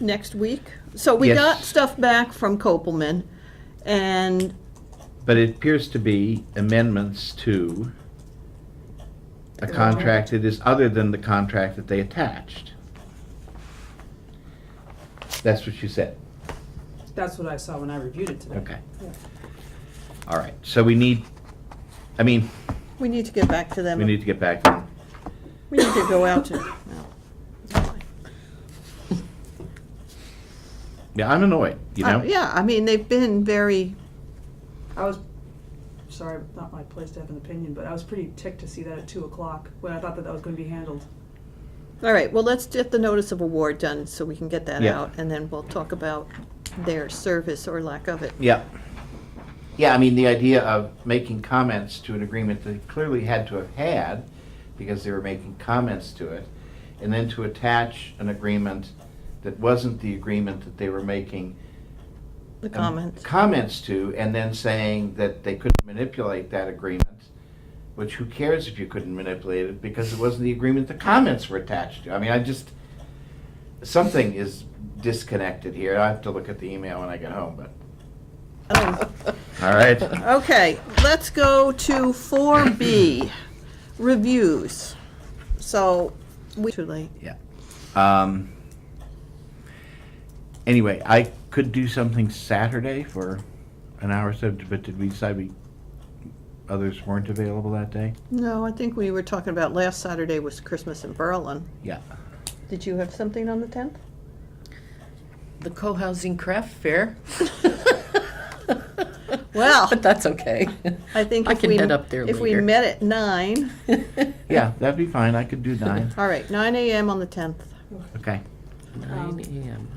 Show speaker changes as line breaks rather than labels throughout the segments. next week? So we
Yes.
got stuff back from Copelman, and
But it appears to be amendments to a contract that is other than the contract that they attached. That's what you said.
That's what I saw when I reviewed it today.
Okay. All right, so we need, I mean,
we need to get back to them.
we need to get back to them.
We need to go out to, no.
Yeah, I'm annoyed, you
Uh,
know?
Yeah, I mean, they've been very,
I was, sorry, not my place to have an opinion, but I was pretty ticked to see that at two o'clock, when I thought that that was gonna be handled.
all right, well, let's get the notice of award done so we can get that
Yeah.
out, and then we'll talk about their service or lack of it.
Yeah. Yeah, I mean, the idea of making comments to an agreement they clearly had to have had because they were making comments to it, and then to attach an agreement that wasn't the agreement that they were making.
The
um,
comments.
Comments to, and then saying that they couldn't manipulate that agreement, which who cares if you couldn't manipulate it because it wasn't the agreement the comments were attached to. I mean, I just, something is disconnected here. I have to look at the email when I get home, but, all right.
Oh, Okay, let's go to four B, reviews. So, we, too late.
Um, anyway, I could do something Saturday for an hour or so, but did we decide we, others weren't available that day?
No, I think we were talking about last Saturday was Christmas in Berlin.
Yeah.
Did you have something on the tenth?
The co-housing craft fair.
Well-
But that's okay.
I think
I
if
can
we-
head up there
If we
later.
met at nine,
Yeah, that'd be fine. I could do nine.
all right, nine AM on the tenth.
Okay.
Nine
Um,
AM.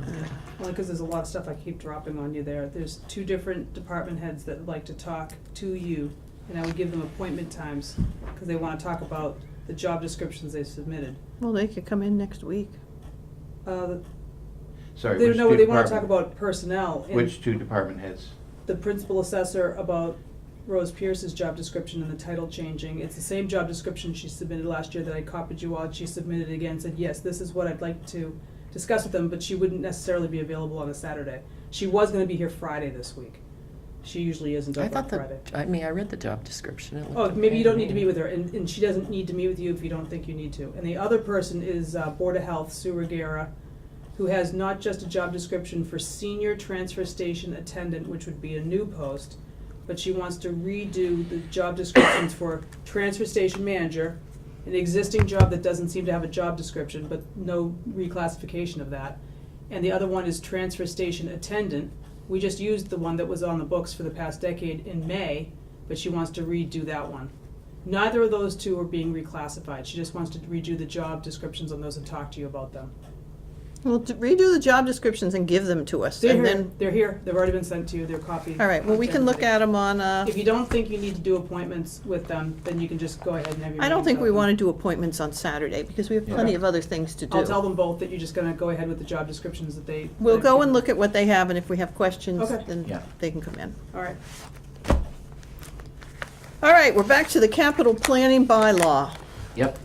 Only because there's a lot of stuff I keep dropping on you there. There's two different department heads that would like to talk to you, and I would give them appointment times, because they wanna talk about the job descriptions they submitted.
Well, they could come in next week.
Uh,
Sorry.
they,
which
no,
two
they wanna talk
department-
about personnel, and
Which two department heads?
the principal assessor about Rose Pierce's job description and the title changing. It's the same job description she submitted last year that I copied you on. She submitted it again, said, yes, this is what I'd like to discuss with them, but she wouldn't necessarily be available on a Saturday. She was gonna be here Friday this week. She usually isn't
I
up on
thought the,
Friday.
I mean, I read the job description. It
Oh,
looked
maybe you
okay
don't need to
me.
be with her, and, and she doesn't need to meet with you if you don't think you need to. And the other person is uh, Board of Health, Sue Regera, who has not just a job description for senior transfer station attendant, which would be a new post, but she wants to redo the job descriptions for transfer station manager, an existing job that doesn't seem to have a job description, but no reclassification of that. And the other one is transfer station attendant. We just used the one that was on the books for the past decade in May, but she wants to redo that one. Neither of those two are being reclassified. She just wants to redo the job descriptions on those and talk to you about them.
Well, to redo the job descriptions and give them to us,
They're
and
here,
then,
they're here, they've already been sent to you, they're copied.
all right, well, we can look at them on, uh,
If you don't think you need to do appointments with them, then you can just go ahead and have your.
I don't
meetings
think we
open.
wanna do appointments on Saturday, because we have plenty of other things to do.
I'll tell them both that you're just gonna go ahead with the job descriptions that they.
We'll
that-
go and look at what they have, and if we have questions,
Okay.
then
Yeah.
they can come in.
All right,
All right, we're back to the capital planning bylaw.
Yep.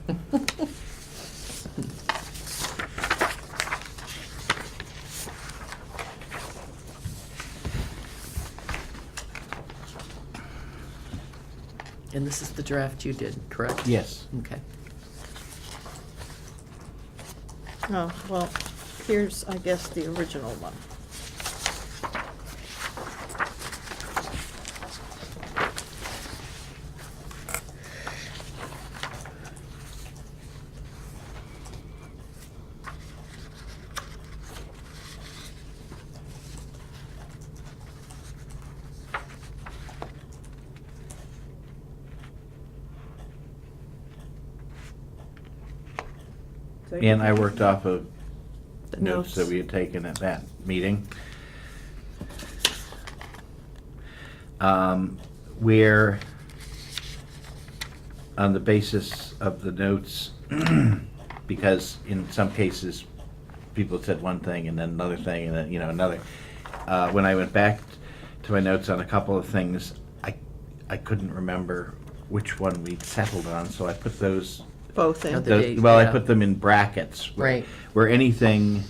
And this is the draft you did, correct?
Yes.
Okay.
Oh, well, here's, I guess, the original one.
So you-
And I worked off of
The
notes that we had taken at that meeting. Um, Where, on the basis of the notes, because in some cases, people said one thing and then another thing and then, you know, another. Uh, When I went back to my notes on a couple of things, I, I couldn't remember which one we settled on, so I put those
Both in.
Now The
those-
date,
well, I
yeah.
put them in brackets. where-
Right.
Where anything